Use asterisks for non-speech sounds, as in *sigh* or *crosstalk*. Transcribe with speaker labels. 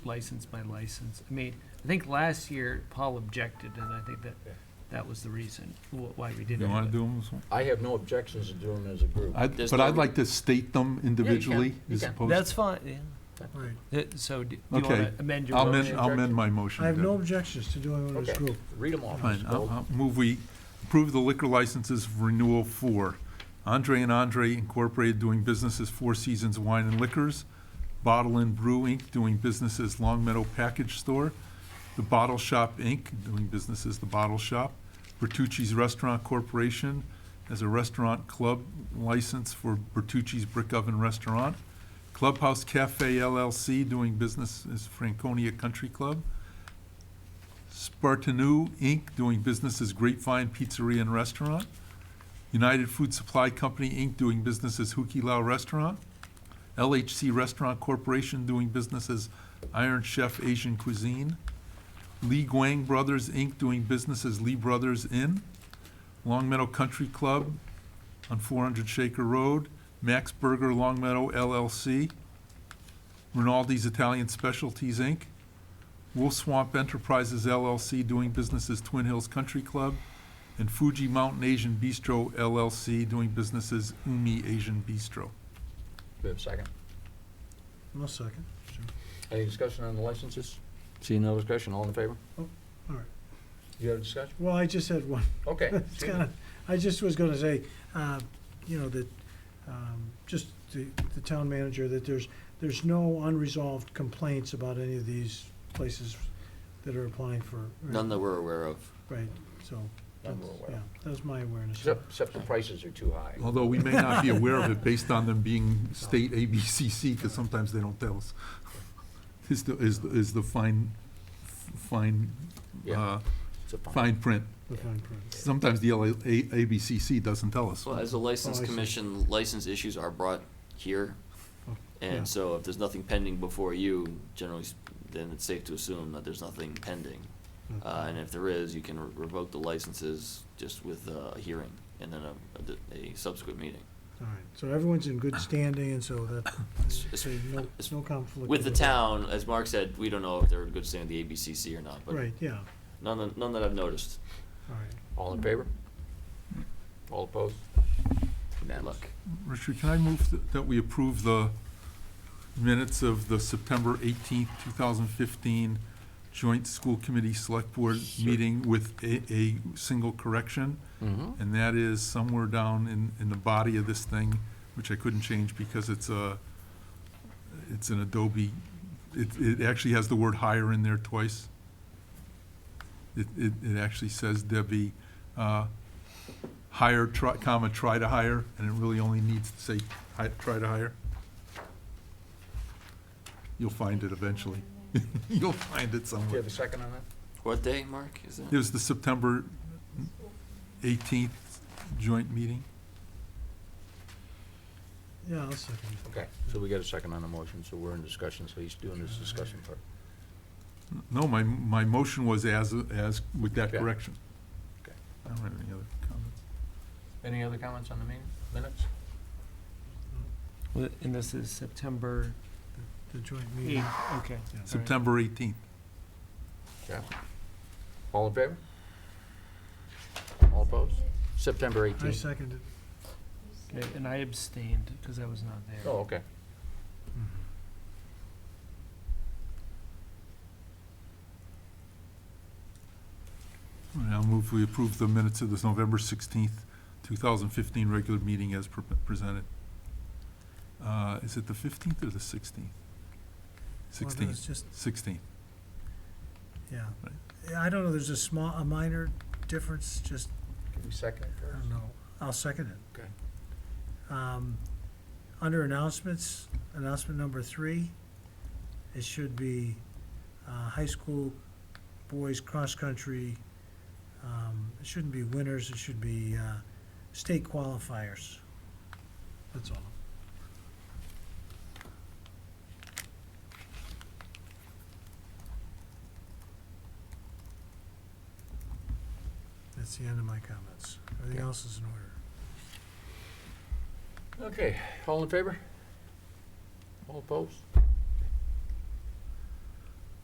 Speaker 1: license by license. I mean, I think last year Paul objected, and I think that that was the reason wh- why we didn't.
Speaker 2: You want to
Speaker 1: do it.
Speaker 2: do them as one?
Speaker 3: I have no objections to doing it as a group.
Speaker 2: I'd-
Speaker 4: There's
Speaker 2: But
Speaker 4: no
Speaker 2: I'd
Speaker 4: re-
Speaker 2: like to state them individually
Speaker 3: you
Speaker 2: as
Speaker 3: can.
Speaker 2: opposed.
Speaker 1: That's fine, yeah.
Speaker 5: Right.
Speaker 1: That- So d- do you
Speaker 2: Okay.
Speaker 1: want to amend your
Speaker 2: I'll amend,
Speaker 1: motion?
Speaker 2: I'll amend my motion.
Speaker 5: I have no
Speaker 2: then.
Speaker 5: objections to doing it as a
Speaker 3: Okay.
Speaker 5: group.
Speaker 3: Read them all.
Speaker 2: Fine,
Speaker 3: Mr.
Speaker 2: I'll,
Speaker 3: Gold.
Speaker 2: I'll move we approve the liquor licenses for renewal for Andre and Andre Incorporated doing business as Four Seasons Wine and Liquors, Bottle and Brew Inc. doing business as Long Meadow Package Store, The Bottle Shop Inc. doing business as The Bottle Shop, Bertucci's Restaurant Corporation as a restaurant club license for Bertucci's Brick Oven Restaurant, Clubhouse Cafe LLC doing business as Franconia Country Club, Spartanu Inc., doing business as Grapevine Pizzeria and Restaurant. United Food Supply Company Inc., doing business as Hukilau Restaurant. LHC Restaurant Corporation, doing business as Iron Chef Asian Cuisine. Lee Guang Brothers Inc., doing business as Lee Brothers Inn. Long Meadow Country Club on 400 Shaker Road. Max Burger Long Meadow LLC. Rinaldi's Italian Specialties Inc. Wolf Swamp Enterprises LLC, doing business as Twin Hills Country Club, and Fuji Mountain Asian Bistro LLC, doing business as Umi Asian Bistro.
Speaker 3: We have a second.
Speaker 5: No second. Sure.
Speaker 3: Any discussion on the licenses? Seeing no discussion, all in favor?
Speaker 5: Oh, all right.
Speaker 3: You have a discussion?
Speaker 5: Well, I just had one.
Speaker 3: Okay.
Speaker 5: *laughs* It's kinda- I just was gonna say, uh, you know, that, um, just the, the town manager, that there's, there's no unresolved complaints about any of these places that are applying for.
Speaker 4: None that we're aware of.
Speaker 5: Right, so.
Speaker 3: None
Speaker 5: that's-
Speaker 3: we're aware of.
Speaker 5: Yeah, that was my awareness.
Speaker 3: Except, except the prices are too high.
Speaker 2: Although we may not be aware of it based on them being state ABCC, because sometimes they don't tell us. Is the, is, the- is the fine, fine, uh,
Speaker 3: Yeah. It's a fine.
Speaker 2: fine print.
Speaker 5: The fine
Speaker 4: Uh,
Speaker 5: print.
Speaker 2: Sometimes the LA, A- ABCC doesn't tell us.
Speaker 4: Well, as a license
Speaker 5: Oh, I see.
Speaker 4: commission, license issues are brought here.
Speaker 5: Oh, yeah.
Speaker 4: And so if there's nothing pending before you, generally, s- then it's safe to assume that there's nothing pending. Uh, and if there is, you can re- revoke the licenses just with uh, a hearing and then a- a, d- a subsequent meeting.
Speaker 5: All right, so everyone's in good standing, and so
Speaker 4: *coughs*
Speaker 5: that,
Speaker 4: it's-
Speaker 5: so no,
Speaker 4: it's-
Speaker 5: no conflict.
Speaker 4: With the
Speaker 5: of-
Speaker 4: town, as Mark said, we don't know if they're in good standing with the ABCC or not, but
Speaker 5: Right, yeah, all
Speaker 4: none, that- none that I've noticed.
Speaker 5: right.
Speaker 3: All in favor? All opposed?
Speaker 4: Good
Speaker 3: Unanimous.
Speaker 4: luck.
Speaker 2: Richard, can I move th- that we approve the minutes of the September eighteenth, two thousand fifteen joint school committee select board meeting with a, a single correction?
Speaker 3: Mm-hmm.
Speaker 2: And that is somewhere down in, in the body of this thing, which I couldn't change because it's a, it's an Adobe, it, it actually has the word hire in there twice. It, it, it actually says Debbie, uh, hire, try, comma, try to hire, and it really only needs to say, hi, try to hire. You'll find it eventually. *laughs* You'll find it
Speaker 3: Do you
Speaker 2: somewhere.
Speaker 3: have a second on that?
Speaker 4: What day, Mark? Is that?
Speaker 2: It was the September eighteenth joint meeting.
Speaker 5: Yeah, I'll second it.
Speaker 3: Okay, so we got a second on the motion, so we're in discussion, so he's doing his discussion part.
Speaker 2: No, my, my motion was as, as, with that
Speaker 3: Okay.
Speaker 2: correction.
Speaker 3: Okay.
Speaker 2: I don't have any other comments.
Speaker 3: Any other comments on the meeting, minutes?
Speaker 1: Well, And this is September
Speaker 5: The joint meeting.
Speaker 1: 8th, okay.
Speaker 5: Yeah.
Speaker 1: All right.
Speaker 2: September eighteenth.
Speaker 3: All in favor? All opposed? September
Speaker 5: I
Speaker 3: eighteenth.
Speaker 5: second it.
Speaker 1: Okay, And I abstained because I was not there.
Speaker 3: Oh, okay.
Speaker 2: I'll move we approve the minutes of this November sixteenth, two thousand fifteen regular meeting as pre- presented. Uh, is it the fifteenth or the sixteenth?
Speaker 5: Well,
Speaker 2: Sixteenth,
Speaker 5: it's just,
Speaker 2: sixteenth.
Speaker 5: yeah. Yeah, I don't know, there's a small, a minor difference, just,
Speaker 3: Can we second it
Speaker 5: I
Speaker 3: first?
Speaker 5: don't know. I'll second it.
Speaker 3: Okay.
Speaker 5: Um, under announcements, announcement number three, it should be, uh, high school boys cross-country. Um, it shouldn't be winners, it should be, uh, state qualifiers. That's all. That's the end of my comments. Everything
Speaker 3: Okay.
Speaker 5: else is in order.
Speaker 3: Okay, all in favor? All opposed?